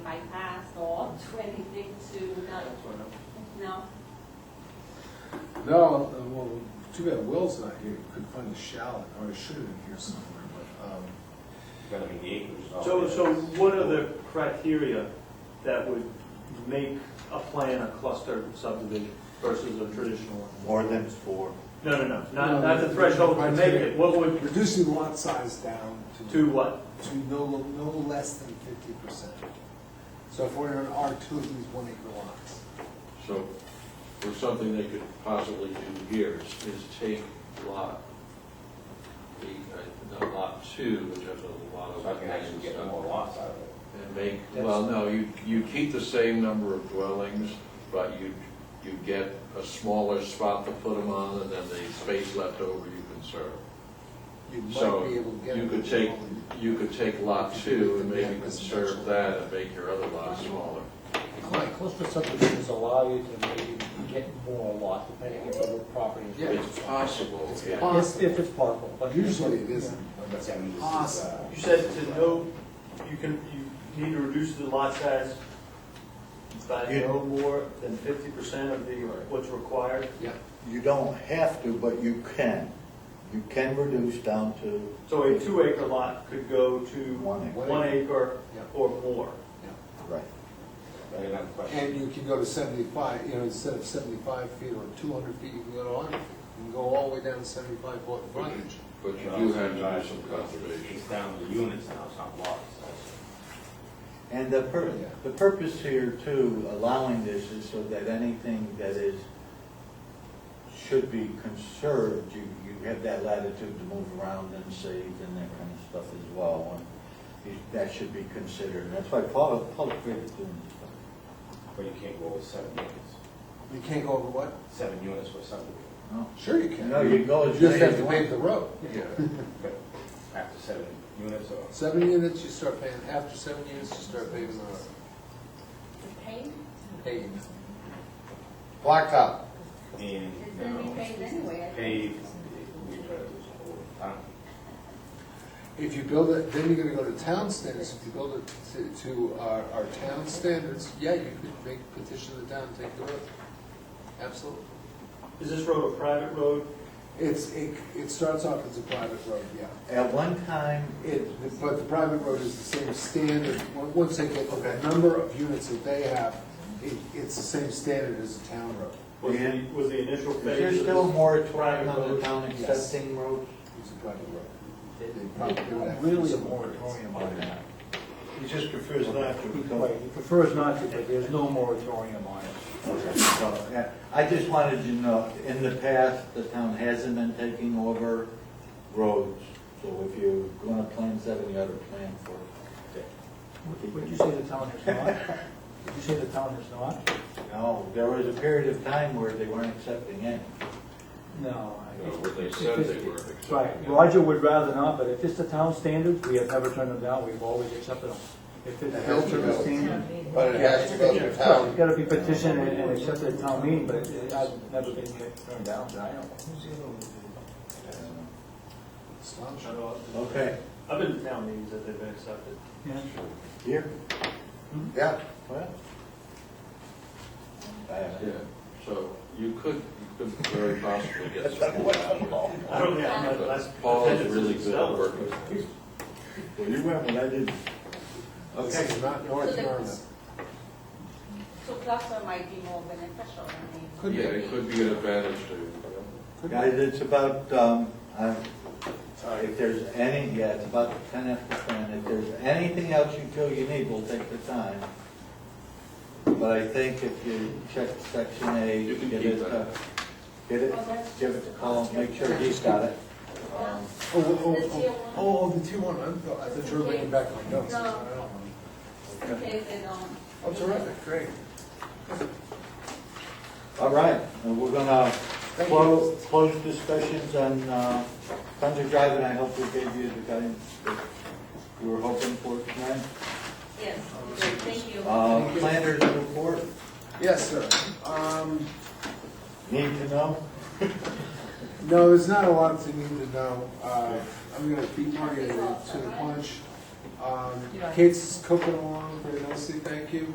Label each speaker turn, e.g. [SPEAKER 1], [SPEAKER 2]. [SPEAKER 1] bypass or do anything to, uh, no?
[SPEAKER 2] No, uh, well, too bad Will's not here, couldn't find the shallot, or it should have been here somewhere, but, um,
[SPEAKER 3] Gonna be the acres. Oh, is all
[SPEAKER 4] So,
[SPEAKER 3] it is.
[SPEAKER 4] so what are the criteria that would make a plan a cluster subdivision versus a traditional one?
[SPEAKER 5] More than four.
[SPEAKER 4] No, no, no, not,
[SPEAKER 2] No,
[SPEAKER 4] not the
[SPEAKER 2] no,
[SPEAKER 4] threshold to make
[SPEAKER 2] criteria.
[SPEAKER 4] it, what would,
[SPEAKER 2] reducing the lot size down to.
[SPEAKER 4] to what?
[SPEAKER 2] To no, no less than fifty percent. So if we're in R two, of these one acre lots.
[SPEAKER 6] So, or something they could possibly do here is, is take lot, the, uh, no, lot two, which has a lot of.
[SPEAKER 3] So I can actually get more lots out of it.
[SPEAKER 6] And make, well, no, you, you keep the same number of dwellings, but you, you get a smaller spot to put them on, and then the space left over you can serve.
[SPEAKER 2] You might
[SPEAKER 6] So,
[SPEAKER 2] be able to get.
[SPEAKER 6] you could take, you could take lot two and maybe conserve that and make your other lot smaller.
[SPEAKER 7] Right, cluster subdivisions allow you to maybe get more lot depending on the property.
[SPEAKER 2] Yeah.
[SPEAKER 6] It's possible, yeah.
[SPEAKER 7] If, if it's possible, but.
[SPEAKER 2] Usually it isn't, but that's
[SPEAKER 3] Yeah, I mean, this is, uh,
[SPEAKER 2] possible.
[SPEAKER 4] You said to no, you can, you need to reduce the lot size by
[SPEAKER 5] Yeah.
[SPEAKER 4] no more than fifty percent of the, what's required?
[SPEAKER 2] Yeah.
[SPEAKER 5] You don't have to, but you can. You can reduce down to.
[SPEAKER 4] So a two acre lot could go to
[SPEAKER 5] One acre.
[SPEAKER 4] one acre
[SPEAKER 2] Yeah.
[SPEAKER 4] or more.
[SPEAKER 5] Right.
[SPEAKER 3] I got another question.
[SPEAKER 2] And you can go to seventy-five, you know, instead of seventy-five feet or two hundred feet, you can go to hundred feet. You can go all the way down to seventy-five foot frontage.
[SPEAKER 6] But you do have to do some conservation.
[SPEAKER 3] It's down to units now, it's not lots. That's-
[SPEAKER 5] And the pur,
[SPEAKER 2] Yeah.
[SPEAKER 5] the purpose here too, allowing this is so that anything that is, should be conserved, you, you have that latitude to move around and save and that kind of stuff as well. And you- That should be considered, and that's why public, public is doing this stuff.
[SPEAKER 3] But you can't go over seven units.
[SPEAKER 2] You can't go over what?
[SPEAKER 3] Seven units for subdivision.
[SPEAKER 5] No?
[SPEAKER 2] Sure you can.
[SPEAKER 5] No, you go as
[SPEAKER 2] You just
[SPEAKER 5] many as
[SPEAKER 2] have to
[SPEAKER 5] you
[SPEAKER 2] pave
[SPEAKER 5] want.
[SPEAKER 2] the road.
[SPEAKER 6] Yeah.
[SPEAKER 3] But after seven units or,
[SPEAKER 2] Seven units, you start paying, after seven units, you start paving the road.
[SPEAKER 1] The pain?
[SPEAKER 2] Paving.
[SPEAKER 5] Blacktop.
[SPEAKER 1] It's
[SPEAKER 3] and, you
[SPEAKER 1] gonna be
[SPEAKER 3] know,
[SPEAKER 1] paid anyway.
[SPEAKER 3] paved, we try to do some over time.
[SPEAKER 2] If you build it, then you're gonna go to town standards, if you build it to, to our, our town standards, yeah, you could make petition to the town, take the road. Absolutely.
[SPEAKER 4] Is this road a private road?
[SPEAKER 2] It's, it, it starts off as a private road, yeah.
[SPEAKER 5] At one time,
[SPEAKER 2] It, but the private road is the same standard, on- once they get the number of units that they have, it, it's the same standard as a town road.
[SPEAKER 4] Was the,
[SPEAKER 5] Yeah.
[SPEAKER 4] was the initial phase?
[SPEAKER 5] is there
[SPEAKER 4] of
[SPEAKER 5] still
[SPEAKER 4] this
[SPEAKER 5] more
[SPEAKER 4] private
[SPEAKER 5] moratorium on the
[SPEAKER 4] road?
[SPEAKER 5] town
[SPEAKER 2] Yes.
[SPEAKER 5] accepting roads?
[SPEAKER 2] It's a private road. They probably do that.
[SPEAKER 7] Really a moratorium on that.
[SPEAKER 5] He just prefers not
[SPEAKER 7] Right, he prefers not to, but there's no moratorium on it.
[SPEAKER 5] So, yeah, I just wanted you to know, in the past, the town hasn't been taking over roads, so if you're gonna plan seven, you ought to plan for that.
[SPEAKER 7] Would- Would you say the town has not? Would you say the town has not?
[SPEAKER 5] No, there was a period of time where they weren't accepting any.
[SPEAKER 7] No. I-
[SPEAKER 6] No, what they said they were accepting.
[SPEAKER 7] Right, Roger would rather not, but if it's the town standard, we have never turned them down, we've always accepted them. If it's
[SPEAKER 2] It has to
[SPEAKER 7] built to the
[SPEAKER 2] go.
[SPEAKER 7] standard.
[SPEAKER 2] But it has to go to
[SPEAKER 7] Well,
[SPEAKER 2] town.
[SPEAKER 7] It's gotta be petitioned and and accepted at town meeting, but it- I've never been turned down, that I know.
[SPEAKER 4] I don't know.
[SPEAKER 5] Okay.
[SPEAKER 4] I've been to town meetings that they've been accepted.
[SPEAKER 7] Yeah.
[SPEAKER 5] Here? Yeah. Well. I have
[SPEAKER 6] Yeah, so you could, you could very possibly get some more out of it.
[SPEAKER 4] I don't think I've had less.
[SPEAKER 6] But Paul is really good at working.
[SPEAKER 5] Well, you went, but I didn't.
[SPEAKER 2] This is not North Yarmouth.
[SPEAKER 1] So cluster might be more beneficial, I mean.
[SPEAKER 2] Could be.
[SPEAKER 6] Yeah, it could be an advantage to,
[SPEAKER 5] Guys, it's about, um, uh, if there's any, yeah, it's about ten after ten, if there's anything else you feel you need, we'll take the time. But I think if you check section A,
[SPEAKER 6] You can
[SPEAKER 5] get
[SPEAKER 6] keep
[SPEAKER 5] it,
[SPEAKER 6] that.
[SPEAKER 5] uh, get it, give it to Colin, make sure he's got it. Um,
[SPEAKER 2] Oh, oh,
[SPEAKER 1] The tier
[SPEAKER 2] oh,
[SPEAKER 1] one.
[SPEAKER 2] oh, oh, the tier one, I'm, I thought you were bringing back my notes.
[SPEAKER 1] No.
[SPEAKER 5] yeah.
[SPEAKER 1] In case they don't.
[SPEAKER 2] Oh, terrific, great.
[SPEAKER 5] All right, and we're gonna
[SPEAKER 2] Thank you.
[SPEAKER 5] close, close discussions on, uh, Thunder Drive, and I hope we gave you the guidance that you were hoping for tonight.
[SPEAKER 1] Yes, good, thank you.
[SPEAKER 5] Uh, planners report,
[SPEAKER 2] Yes, sir. Um,
[SPEAKER 5] need to know?
[SPEAKER 2] No, there's not a lot to need to know. Uh, I'm gonna beat Marty to the punch. Um,
[SPEAKER 1] Yeah.
[SPEAKER 2] Kate's cooking along very nicely, thank you.